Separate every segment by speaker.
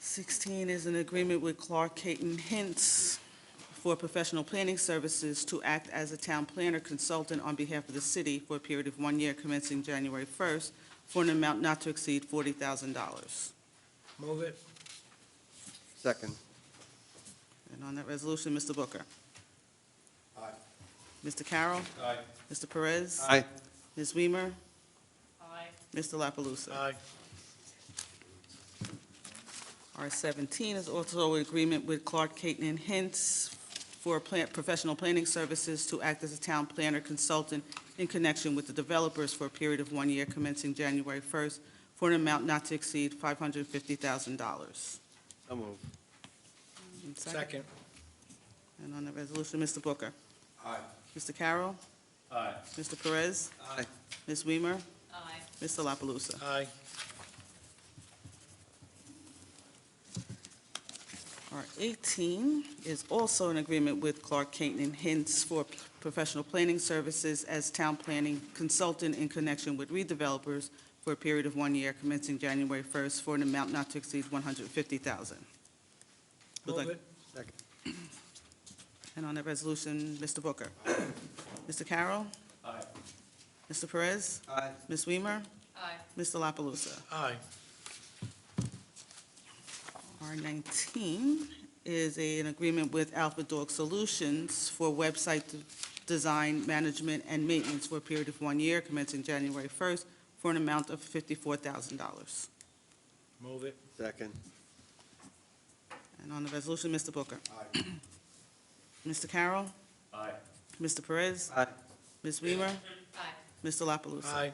Speaker 1: 16 is an agreement with Clark Caton Hints for professional planning services to act as a town planner consultant on behalf of the city for a period of one year commencing January 1st for an amount not to exceed $40,000.
Speaker 2: Move it.
Speaker 3: Second.
Speaker 1: And on that resolution, Mr. Booker. Aye. Mr. Carroll.
Speaker 2: Aye.
Speaker 1: Mr. Perez.
Speaker 3: Aye.
Speaker 1: Ms. Weimer. Aye. Mr. La Palusa.
Speaker 2: Aye.
Speaker 1: R seventeen is also an agreement with Clark Caton and Hints for plant, professional planning services to act as a town planner consultant in connection with the developers for a period of one year commencing January first for an amount not to exceed five hundred and fifty thousand dollars.
Speaker 3: So moved.
Speaker 2: Second.
Speaker 1: And on the resolution, Mr. Booker.
Speaker 3: Aye.
Speaker 1: Mr. Carroll.
Speaker 2: Aye.
Speaker 1: Mr. Perez.
Speaker 3: Aye.
Speaker 1: Ms. Weimer.
Speaker 4: Aye.
Speaker 1: Mr. La Palusa.
Speaker 2: Aye.
Speaker 1: R eighteen is also an agreement with Clark Caton and Hints for professional planning services as town planning consultant in connection with redevelopers for a period of one year commencing January first for an amount not to exceed one hundred fifty thousand. Would
Speaker 2: Move
Speaker 1: like-
Speaker 2: it.
Speaker 1: And on that resolution, Mr. Booker. Mr. Carroll.
Speaker 2: Aye.
Speaker 1: Mr. Perez.
Speaker 3: Aye.
Speaker 1: Ms. Weimer.
Speaker 4: Aye.
Speaker 1: Mr. La Palusa.
Speaker 2: Aye.
Speaker 1: R19 is a- an agreement with Alpha Dog Solutions for website de- design, management, and maintenance for a period of one year commencing January 1st for an amount of $54,000.
Speaker 2: Move it.
Speaker 3: Second.
Speaker 1: And on the resolution, Mr. Booker. Mr. Carroll.
Speaker 2: Aye.
Speaker 1: Mr. Perez.
Speaker 3: Aye.
Speaker 1: Ms. Weimer.
Speaker 4: Aye.
Speaker 1: Mr. La Palusa.
Speaker 2: Aye.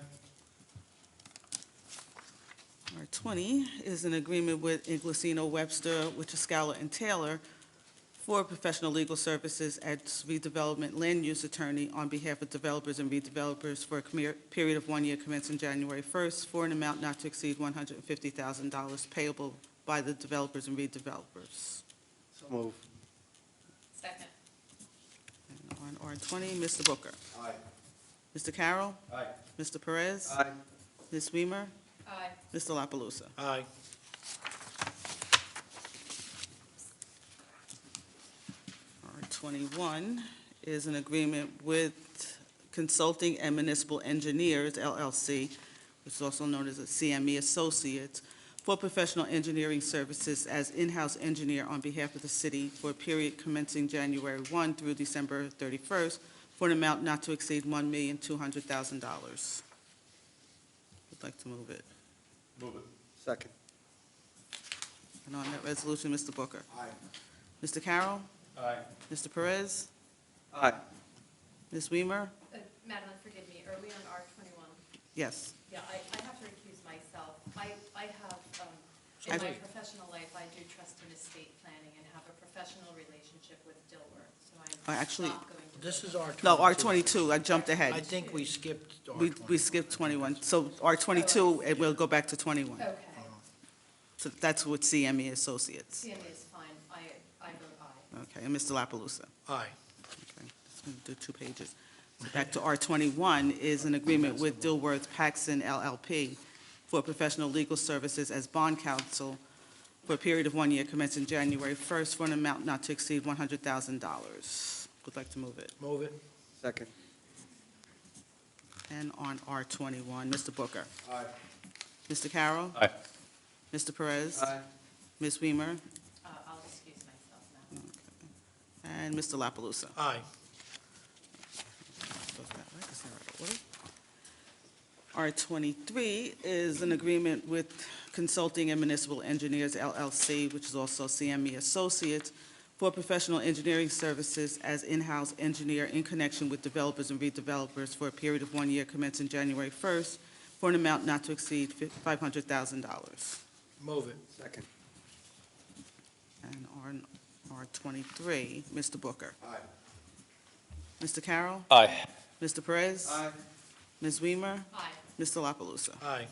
Speaker 1: R twenty is an agreement with Inglesino Webster, Scala and Taylor for professional legal services as redevelopment land use attorney on behalf of developers and redevelopers for a commer- period of one year commencing January first for an amount not to exceed one hundred and fifty thousand dollars payable by the developers and redevelopers.
Speaker 3: So moved.
Speaker 4: Second.
Speaker 1: And on R twenty, Mr. Booker.
Speaker 3: Aye.
Speaker 1: Mr. Carroll.
Speaker 3: Aye.
Speaker 1: Mr. Perez.
Speaker 3: Aye.
Speaker 1: Ms. Weimer.
Speaker 4: Aye.
Speaker 1: Mr. La Palusa.
Speaker 2: Aye.
Speaker 1: R twenty-one is an agreement with Consulting and Municipal Engineers LLC, which is also known as a CME E Associates, for professional engineering services as in-house engineer on behalf of the city for a period commencing January one through December thirty-first for an amount not to exceed one million two hundred thousand dollars. Would like to move it.
Speaker 2: Move it.
Speaker 3: Second.
Speaker 1: And on that resolution, Mr. Booker. Aye. Mr. Carroll,
Speaker 2: Aye.
Speaker 1: Mr. Perez,
Speaker 3: Aye.
Speaker 1: Ms. Weimer,
Speaker 4: Uh, Madeline, forgive me, are we on R twenty-one?
Speaker 1: yes.
Speaker 4: Yeah, I, I have to recuse myself. I, I have, um,
Speaker 1: I-
Speaker 4: in my professional life, I do trust in estate planning and have a professional relationship with Dilworth, so
Speaker 1: Oh,
Speaker 4: I'm
Speaker 1: actually,
Speaker 4: not going to.
Speaker 2: This
Speaker 4: vote.
Speaker 2: is R
Speaker 1: No, R twenty-two, I jumped
Speaker 2: I
Speaker 1: ahead.
Speaker 2: think we skipped R
Speaker 1: We,
Speaker 2: twenty-one.
Speaker 1: we skipped twenty-one, so R twenty-two, and we'll go back to twenty-one.
Speaker 4: Okay,
Speaker 1: So that's with CME E Associates.
Speaker 4: CMA is fine. I, I vote aye.
Speaker 1: Okay, and Mr. La Palusa.
Speaker 2: Aye.
Speaker 1: Okay, just gonna do two pages. So Back to R twenty-one is an agreement with Dilworth Paxson LLP for professional legal services as bond counsel for a period of one year commencing January first for an amount not to exceed one hundred thousand dollars. Would like to move it.
Speaker 2: Move it.
Speaker 3: Second.
Speaker 1: And on R twenty-one, Mr. Booker.
Speaker 3: Aye.
Speaker 1: Mr. Carroll.
Speaker 2: Aye.
Speaker 1: Mr. Perez.
Speaker 3: Aye.
Speaker 1: Ms. Weimer
Speaker 4: Uh, I'll excuse myself now.
Speaker 1: and Mr. La Palusa.
Speaker 2: Aye.
Speaker 1: R twenty-three is an agreement with Consulting and Municipal Engineers LLC, which is also CME Associates, for professional engineering services as in-house engineer in connection with developers and redevelopers for a period of one year commencing January first for an amount not to exceed five hundred thousand dollars.
Speaker 2: Move it.
Speaker 3: Second.
Speaker 1: And on R twenty-three, Mr. Booker.
Speaker 3: Aye.
Speaker 1: Mr. Carroll?
Speaker 2: Aye.
Speaker 1: Mr. Perez?
Speaker 3: Aye.
Speaker 1: Ms. Weimer?
Speaker 4: Aye.
Speaker 1: Mr. La Palusa?
Speaker 2: Aye.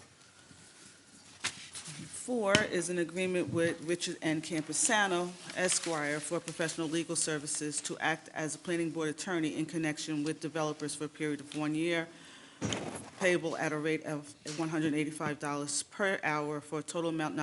Speaker 1: Four is an agreement with Richard N. Campusano Esquire for professional legal services to act as a planning board attorney in connection with developers for a period of one year, payable at a rate of one hundred and eighty-five dollars per hour for a total amount not